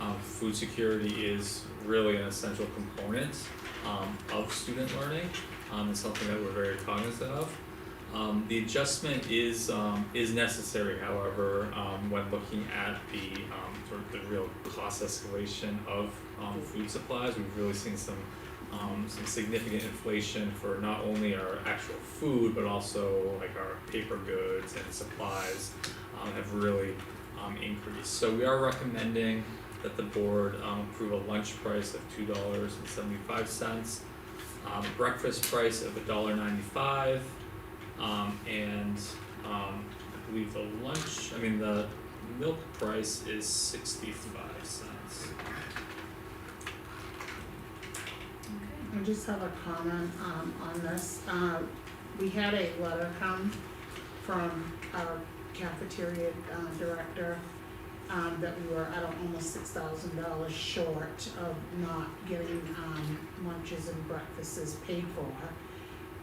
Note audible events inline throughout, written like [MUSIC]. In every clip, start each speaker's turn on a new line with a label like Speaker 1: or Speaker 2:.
Speaker 1: Um, food security is really an essential component um, of student learning. Um, it's something that we're very cognizant of. Um, the adjustment is um, is necessary, however, um, when looking at the um, sort of the real cost escalation of um, food supplies. We've really seen some um, some significant inflation for not only our actual food but also like our paper goods and supplies um, have really um, increased. So we are recommending that the board um, approve a lunch price of two dollars and seventy five cents, um, breakfast price of a dollar ninety five, um, and um, I believe the lunch, I mean the milk price is sixty five cents.
Speaker 2: I just have a comment um on this, uh we had a letter come from our cafeteria uh director um that we were, I don't, almost six thousand dollars short of not getting um lunches and breakfasts paid for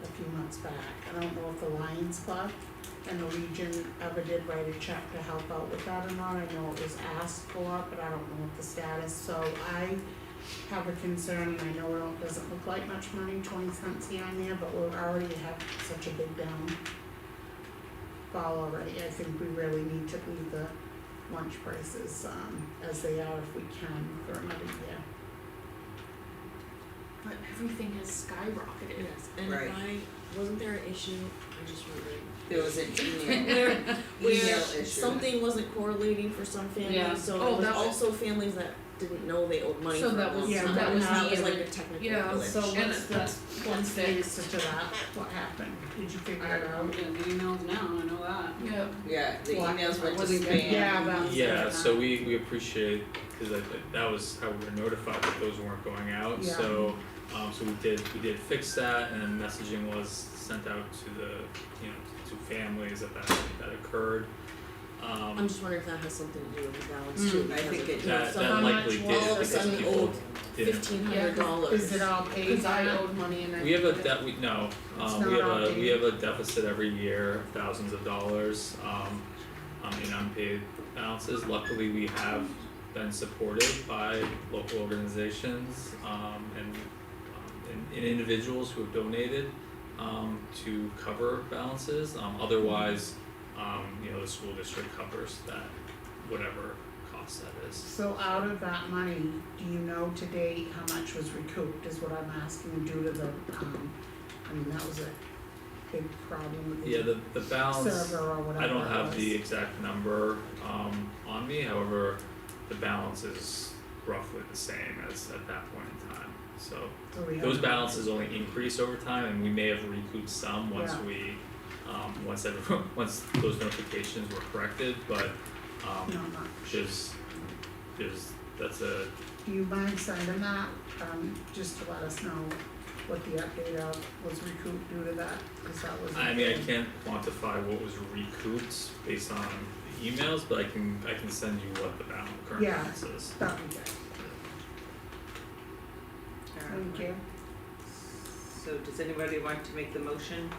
Speaker 2: a few months back. I don't know if the Lions Club and the Legion ever did write a check to help out with that or not, I know it was asked for, but I don't know what the status, so I have a concern, and I know it don't- doesn't look like much money, twenty cents here and there, but we already have such a big down fall already, I think we really need to leave the lunch prices, um, as they are if we can for another year.
Speaker 3: But everything has skyrocketed.
Speaker 4: Yes, and
Speaker 5: Right.
Speaker 4: I, wasn't there an issue, I just remembered.
Speaker 5: There was
Speaker 6: [LAUGHS]
Speaker 5: an email,
Speaker 4: [LAUGHS] Where,
Speaker 5: email
Speaker 4: where
Speaker 5: issue.
Speaker 4: something wasn't correlating for some
Speaker 6: Yeah.
Speaker 4: families, so
Speaker 6: Oh,
Speaker 4: it was
Speaker 6: that was-
Speaker 4: also families that didn't know they owed money for a
Speaker 6: So
Speaker 4: long
Speaker 6: that
Speaker 4: time.
Speaker 6: was-
Speaker 2: Yeah, that was
Speaker 4: That
Speaker 2: the
Speaker 4: was like
Speaker 6: other-
Speaker 4: a technical
Speaker 6: yeah,
Speaker 4: glitch.
Speaker 6: so And what's Oh, that's the one
Speaker 2: What's the
Speaker 6: thing?
Speaker 2: answer to that, what happened, did you figure
Speaker 6: I
Speaker 2: it
Speaker 6: don't
Speaker 2: out?
Speaker 6: know,
Speaker 7: Getting the emails now, I know that.
Speaker 6: Yeah,
Speaker 5: Yeah, the
Speaker 2: Well,
Speaker 5: emails went to
Speaker 7: wasn't good.
Speaker 5: spam.
Speaker 2: Yeah, but-
Speaker 1: Yeah, so we we appreciate, cause that that was how we were notified that those weren't going out,
Speaker 2: Yeah.
Speaker 1: so um so we did, we did fix that and then messaging was sent out to the, you know, to families that that that occurred.
Speaker 4: I'm
Speaker 1: Um
Speaker 4: just wondering if that has something to do with the balance too,
Speaker 5: Mm, I
Speaker 4: because
Speaker 5: think
Speaker 4: of,
Speaker 5: it
Speaker 4: you know,
Speaker 1: that
Speaker 4: some-
Speaker 1: that
Speaker 6: how
Speaker 1: likely did
Speaker 6: much
Speaker 4: all of a
Speaker 1: because
Speaker 4: sudden
Speaker 1: people
Speaker 4: owed
Speaker 1: didn't,
Speaker 4: fifteen hundred dollars.
Speaker 2: Is it all paid?
Speaker 6: cause I
Speaker 2: now?
Speaker 6: owed money and I.
Speaker 1: we have a debt, we no,
Speaker 2: It's
Speaker 1: um we
Speaker 2: not
Speaker 1: have a,
Speaker 2: updated.
Speaker 1: we have a deficit every year, of thousands of dollars, um um in unpaid balances, luckily we have been supported by local organizations um and um and and individuals who have donated um to cover balances, um otherwise um you know the school district covers that whatever cost that is.
Speaker 2: So out of that money, do you know today how much was recouped is what I'm asking due to the, um, I mean, that was a big problem with
Speaker 1: Yeah,
Speaker 2: the
Speaker 1: the the balance,
Speaker 2: server or whatever
Speaker 1: I don't
Speaker 2: it
Speaker 1: have the
Speaker 2: was.
Speaker 1: exact number um on me, however, the balance is roughly the same as at that point in time. So
Speaker 2: So we have-
Speaker 1: those balances only increase over time and we may have recouped some once
Speaker 2: Yeah.
Speaker 1: we um once everyone, [LAUGHS] once those notifications were corrected, but
Speaker 2: No,
Speaker 1: um
Speaker 2: not.
Speaker 1: there's there's, that's a,
Speaker 2: Do you mind sending that, um, just to let us know what the update of was recouped due to that, cause that was.
Speaker 1: I mean, I can't quantify what was recouped based on the emails, but I can I can send you what the balance current
Speaker 2: Yeah.
Speaker 1: balance is.
Speaker 2: That we did, thank you.
Speaker 5: So does anybody want to make the motion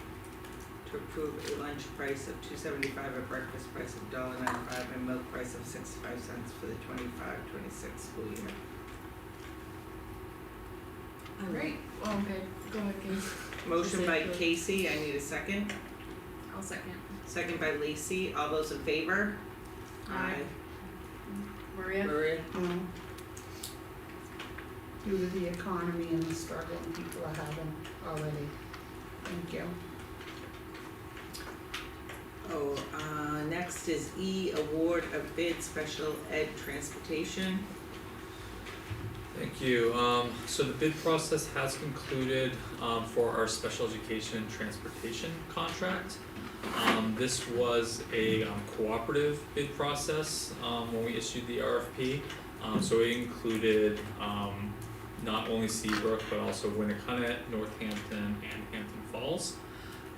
Speaker 5: to approve a lunch price of two seventy-five, a breakfast price of dollar ninety-five, and milk price of sixty-five cents for the twenty-five, twenty-six school year?
Speaker 4: I would-
Speaker 6: Great, oh, okay, go ahead, Kate.
Speaker 5: Motion by
Speaker 4: Second.
Speaker 5: Casey, I need a second.
Speaker 6: I'll second.
Speaker 5: Second by Lacey, all those in favor?
Speaker 6: Aye. Maria?
Speaker 5: Maria?
Speaker 2: No. Um, Due to the economy and the struggle people are having already, thank you.
Speaker 5: Oh, uh, next is E, award of bid special ed transportation.
Speaker 1: Thank you. Um, so the bid process has concluded, um, for our special education transportation contract. Um, this was a um, cooperative bid process, um, when we issued the RFP. Um, so it included, um, not only Seabrook, but also Winnicott, Northampton, and Hampton Falls.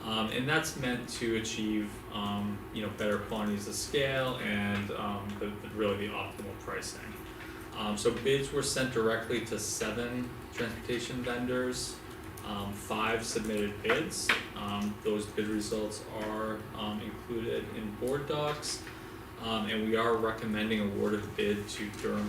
Speaker 1: Um, and that's meant to achieve, um, you know, better quantities of scale and, um, the, the- really the optimal pricing. Um, so bids were sent directly to seven transportation vendors. Um, five submitted bids. Um, those bid results are um, included in board docs. Um, and we are recommending award of bid to Durham